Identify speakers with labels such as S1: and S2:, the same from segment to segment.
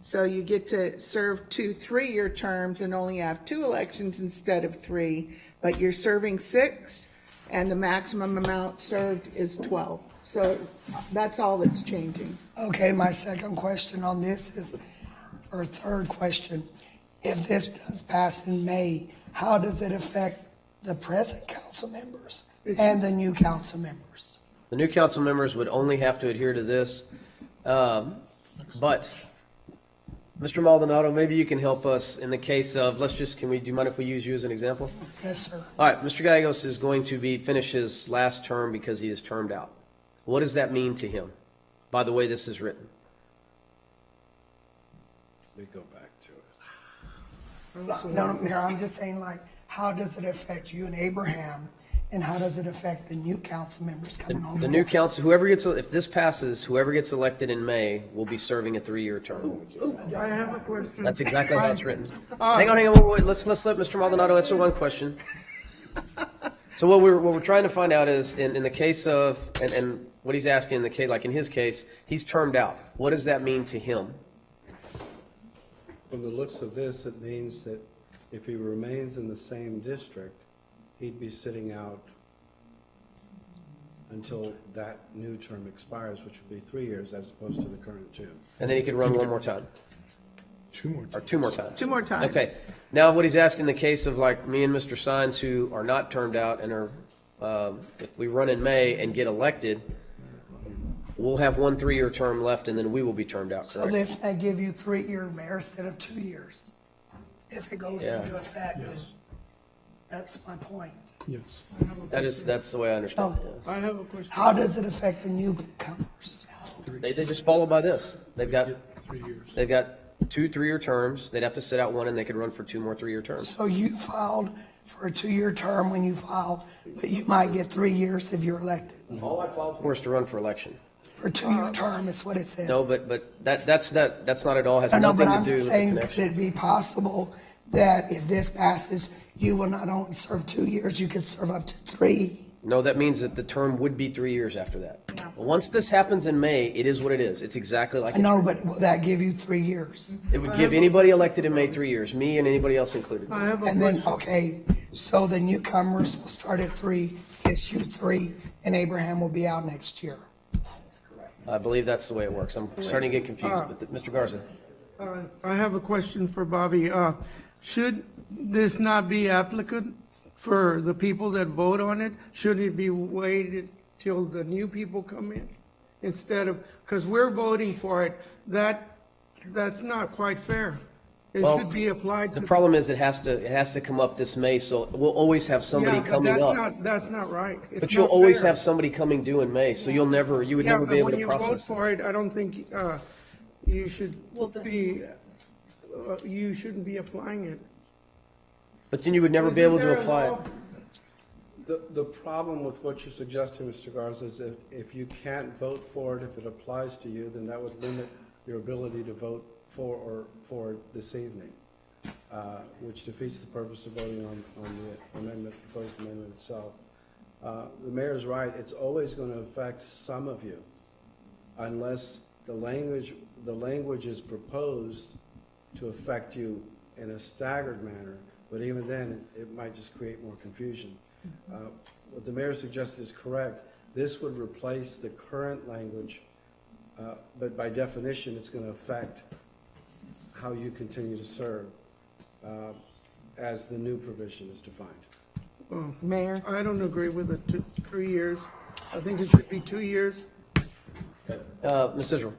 S1: So you get to serve two three-year terms and only have two elections instead of three, but you're serving six, and the maximum amount served is 12. So that's all that's changing.
S2: Okay, my second question on this is, or third question, if this does pass in May, how does it affect the present council members and the new council members?
S3: The new council members would only have to adhere to this. Um, But, Mr. Maldonado, maybe you can help us in the case of, let's just, can we, do you mind if we use you as an example?
S2: Yes, sir.
S3: All right, Mr. Gallegos is going to be, finish his last term because he is termed out. What does that mean to him, by the way this is written?
S4: We go back to it.
S2: No, no, Mayor, I'm just saying like, how does it affect you and Abraham? And how does it affect the new council members coming on?
S3: The new
S2: board?
S3: council, whoever gets, if this passes, whoever gets elected in May will be serving a three-year term.
S5: I have a question.
S3: That's exactly how it's written. Hang on, hang on, wait, wait, let's, let's let Mr. Maldonado answer one question. So what we're, what we're trying to find out is, in, in the case of, and, and what he's asking in the case, like in his case, he's termed out. What does that mean to him?
S4: From the looks of this, it means that if he remains in the same district, he'd be sitting out until that new term expires, which would be three years as opposed to the current two.
S3: And then he could run one more time,
S6: Two more.
S3: or two more times.
S1: Two more times.
S3: Okay, now what he's asking in the case of like me and Mr. Sines who are not termed out and are, um, if we run in May and get elected, we'll have one three-year term left and then we will be termed out,
S2: So
S3: correct?
S2: this may give you three-year mayor instead of two years, if it goes
S3: Yeah.
S2: into effect.
S6: Yes.
S2: That's my point.
S6: Yes.
S3: That is, that's the way I understand it.
S2: Oh.
S3: yes.
S5: I have a question.
S2: How does it affect the newcomers?
S3: They, they just follow by this. They've got,
S6: Three years.
S3: they've got two three-year terms. They'd have to sit out one and they could run for two more three-year terms.
S2: So you filed for a two-year term when you filed, but you might get three years if you're elected.
S3: All I filed for is to run for election.
S2: For a two-year term is what it says.
S3: Uh, No, but, but that, that's not, that's not at all, has
S2: I know,
S3: nothing
S2: but
S3: to
S2: I'm
S3: do with
S2: just
S3: the
S2: saying, could
S3: connection.
S2: it be possible that if this passes, you will not only serve two years, you could serve up to three?
S3: No, that means that the term would be three years after that. Once this happens in May, it is what it is. It's exactly like,
S2: I know, but will that give you three years?
S3: it would give anybody elected in May three years, me and anybody else included.
S5: I have a
S2: And then,
S5: question.
S2: okay, so the newcomers will start at three, it's you three, and Abraham will be out next year.
S3: I believe that's the way it works. I'm starting to get confused, but th- Mr. Garza.
S5: Uh, I have a question for Bobby. Uh, Should this not be applicant for the people that vote on it? Should it be waited till the new people come in instead of, because we're voting for it? That, that's not quite fair. It
S3: Well,
S5: should be applied to.
S3: The problem is it has to, it has to come up this May, so we'll always have somebody
S5: Yeah, but
S3: coming
S5: that's
S3: up.
S5: not- That's not right. It's
S3: But you'll
S5: not
S3: always
S5: fair.
S3: have somebody coming due in May, so you'll never, you would
S5: Yeah,
S3: never
S5: but
S3: be able
S5: when
S3: to
S5: you vote
S3: process. it.
S5: for it, I don't think uh, you should be, uh, you shouldn't be applying it.
S3: But then you would never be able to apply it.
S4: The, the problem with what you're suggesting, Mr. Garza, is if, if you can't vote for it, if it applies to you, then that would limit your ability to vote for or for it this evening, uh, which defeats the purpose of voting on, on the amendment, proposed amendment itself. Uh, The mayor's right, it's always going to affect some of you unless the language, the language is proposed to affect you in a staggered manner, but even then, it might just create more confusion. Uh, What the mayor suggested is correct. This would replace the current language, uh, but by definition, it's going to affect how you continue to serve uh, as the new provision is defined.
S1: Mayor?
S5: I don't agree with the two, three years. I think it should be two years.
S3: Uh, Ms. Israel?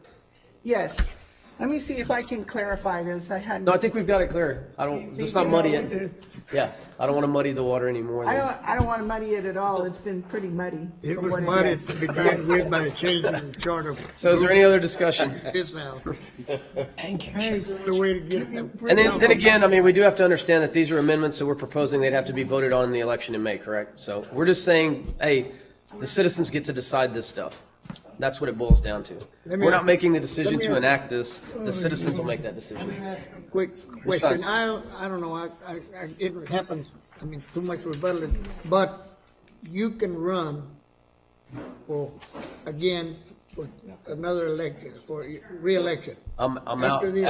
S1: Yes. Let me see if I can clarify this. I hadn't.
S3: No, I think we've got it clear. I don't, let's not muddy it. Yeah, I don't want to muddy the water anymore.
S1: I don't, I don't want to muddy it at all. It's been pretty muddy.
S6: It
S1: from
S6: was
S1: what
S6: muddy
S1: is.
S6: to begin with by changing the charter
S3: So is there any other discussion?
S6: this out.
S2: Thank you.
S6: Hey, the way to get it.
S3: And then, then again, I mean, we do have to understand that these are amendments that we're proposing, they'd have to be voted on in the election in May, correct? So we're just saying, hey, the citizens get to decide this stuff. That's what it boils down to.
S6: Let me
S3: We're not
S6: ask-
S3: making the decision
S6: let me
S3: to
S6: ask- Oh,
S3: enact this, the citizens will make that decision.
S6: Quick question.
S3: Precise.
S6: I, I don't know, I, I, I- it happened, I mean, too much rebuttal, but you can run for, again, for another election, for re-election.
S3: I'm, I'm out.
S6: After the